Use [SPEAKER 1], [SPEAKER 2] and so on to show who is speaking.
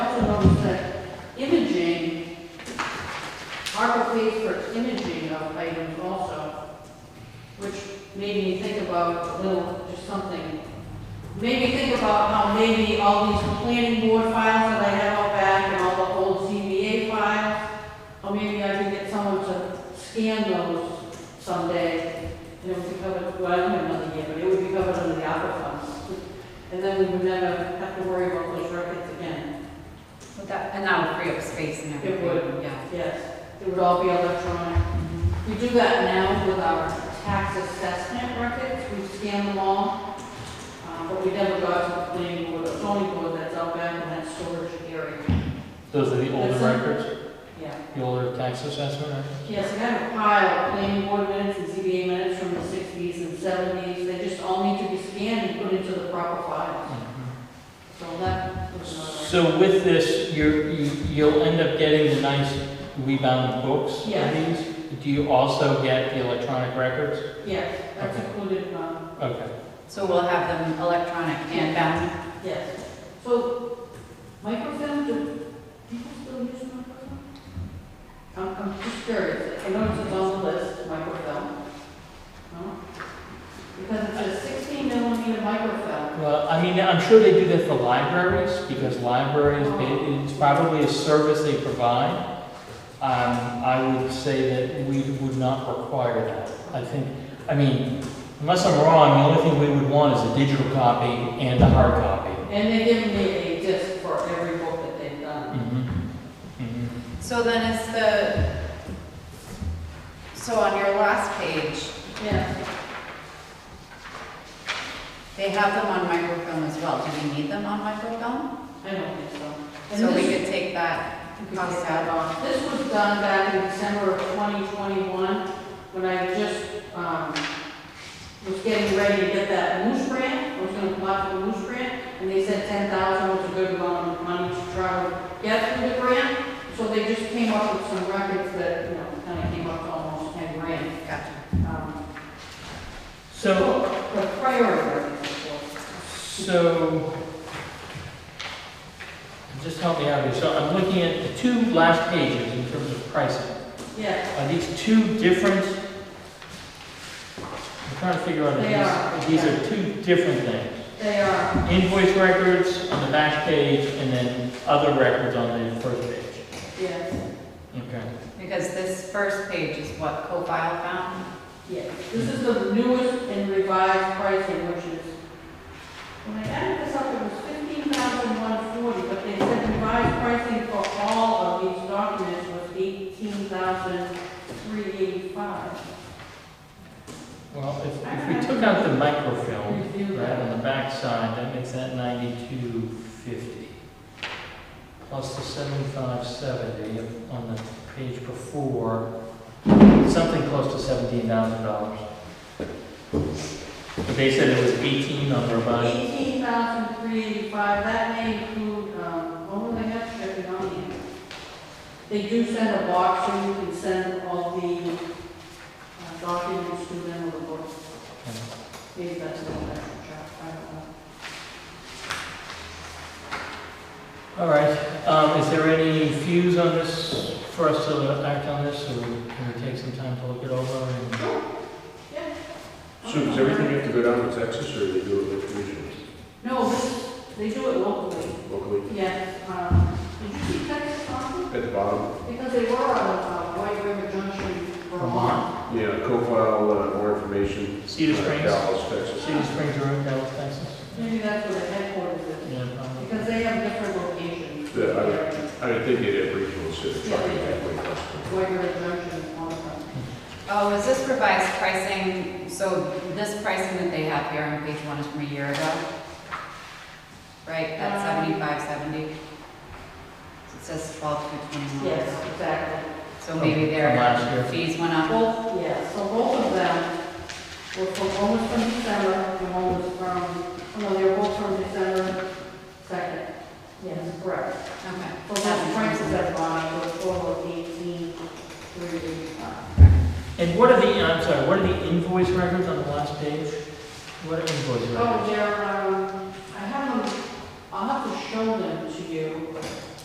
[SPEAKER 1] was that imaging, ARPA pays for imaging of items also, which made me think about a little, just something, made me think about how maybe all these planning board files that I have out back and all the old CBA files, or maybe I could get someone to scan those someday, and it would be covered, well, I don't know another year, but it would be covered under the ARPA funds. And then we would never have to worry about those records again.
[SPEAKER 2] Would that- And that would free up space and
[SPEAKER 1] It
[SPEAKER 2] everything.
[SPEAKER 1] would.
[SPEAKER 2] Yeah.
[SPEAKER 1] Yes, it would all be electronic. We do that now with our tax assessment records, we scan them all. Uh, But we never got to the planning board, or zoning board that's out back in that storage area.
[SPEAKER 3] Those are the older
[SPEAKER 1] That's it.
[SPEAKER 3] records,
[SPEAKER 1] Yeah.
[SPEAKER 3] the older tax assessment records?
[SPEAKER 1] Yes, I got a pile of planning board minutes and ZBA minutes from the sixties and seventies. They just all need to be scanned and put into the proper file. So that was another.
[SPEAKER 3] So with this, you're, you- you'll end up getting the nice rebound books
[SPEAKER 1] Yeah.
[SPEAKER 3] of these? Do you also get the electronic records?
[SPEAKER 1] Yes, that's
[SPEAKER 3] Okay.
[SPEAKER 1] included, um,
[SPEAKER 3] Okay.
[SPEAKER 2] So we'll have them electronic and bound.
[SPEAKER 1] Yes, so microfilm, do people still use microfilm? I'm, I'm just curious, I noticed it's on the list, microfilm. No? Because it's a sixteen millimeter microfilm.
[SPEAKER 3] Well, I mean, I'm sure they do that for libraries, because libraries, it- it's probably a service they provide. Um, I would say that we would not require that. I think, I mean, unless I'm wrong, the only thing we would want is a digital copy and a hard copy.
[SPEAKER 1] And they give me a disc for every book that they've done.
[SPEAKER 3] Mhm. Mhm.
[SPEAKER 2] So then it's the, so on your last page,
[SPEAKER 1] Yes,
[SPEAKER 2] they have them on microfilm as well. Do we need them on microfilm?
[SPEAKER 1] I don't think so. And
[SPEAKER 2] So we
[SPEAKER 1] this-
[SPEAKER 2] could take that.
[SPEAKER 1] you could take that off. This was done back in December of 2021, when I just, um, was getting ready to get that moose grant, I was gonna apply for the moose grant, and they said 10,000 was a good amount of money to try to get through the grant, so they just came up with some records that, you know, kinda came up to almost 10 grand.
[SPEAKER 2] Gotcha.
[SPEAKER 1] Um,
[SPEAKER 3] So,
[SPEAKER 1] The priority records, of course.
[SPEAKER 3] so, just help me out here. So I'm looking at the two last pages in terms of pricing.
[SPEAKER 1] yes,
[SPEAKER 3] Are these two different? I'm trying to figure out
[SPEAKER 1] They
[SPEAKER 3] if these,
[SPEAKER 1] are.
[SPEAKER 3] if these are two different things.
[SPEAKER 1] they are,
[SPEAKER 3] Invoice records on the back page and then other records on the first page.
[SPEAKER 1] yes,
[SPEAKER 3] Okay.
[SPEAKER 2] Because this first page is what co-file found.
[SPEAKER 1] yes. This is the newest and revised pricing, which is When I added this up, it was fifteen thousand one forty, but they said revised pricing for all of these documents was eighteen thousand three eighty-five.
[SPEAKER 3] Well, if, if we took out the microfilm,
[SPEAKER 1] Review
[SPEAKER 3] right,
[SPEAKER 1] that.
[SPEAKER 3] on the back side, that makes that ninety-two fifty. Plus the seventy-five seventy on the page before, something close to seventeen thousand dollars. But they said it was eighteen on their budget.
[SPEAKER 1] Eighteen thousand three eighty-five, that may include, um, oh, they have shipping on here. They do send a box, so you can send all the uh, documents to them with a book. Maybe that's a little extra, I don't know.
[SPEAKER 3] All right, um, is there any views on this, for us to act on this, or can we take some time to look it over and?
[SPEAKER 1] Yeah.
[SPEAKER 4] So does everything have to go down to Texas, or they do it with regions
[SPEAKER 1] No, this- they do it locally.
[SPEAKER 4] locally?
[SPEAKER 1] Yes, um, did you see Texas Council?
[SPEAKER 4] At the bottom,
[SPEAKER 1] Because they were on, uh, White River Junction, Vermont.
[SPEAKER 4] yeah, co-file uh, more information.
[SPEAKER 3] Cedar
[SPEAKER 4] uh,
[SPEAKER 3] Springs,
[SPEAKER 4] Dallas, Texas.
[SPEAKER 3] Cedar Springs, or Dallas, Texas?
[SPEAKER 1] Maybe that's where the headquarters is,
[SPEAKER 3] Yeah, um, probably.
[SPEAKER 1] because they have different locations.
[SPEAKER 4] Yeah, I would think they'd have regional cities, probably that way.
[SPEAKER 1] White River Junction, Vermont.
[SPEAKER 2] Oh, is this revised pricing, so this pricing that they have here on page one is from a year ago? Right, that's
[SPEAKER 1] Um,
[SPEAKER 2] seventy-five seventy? It says twelve to twenty-one.
[SPEAKER 1] Yes, exactly.
[SPEAKER 2] So maybe
[SPEAKER 3] From last
[SPEAKER 2] their
[SPEAKER 3] year.
[SPEAKER 2] fees went up?
[SPEAKER 1] Both, yes, so both of them were from, one was from December, and one was from, oh, no, they were both from December second. Yes, correct.
[SPEAKER 2] Okay.
[SPEAKER 1] So that's prices that bond was four of eighteen, three eighty-five.
[SPEAKER 3] And what are the, I'm sorry, what are the invoice records on the last page? What are invoice records?
[SPEAKER 1] Oh, Jeremiah,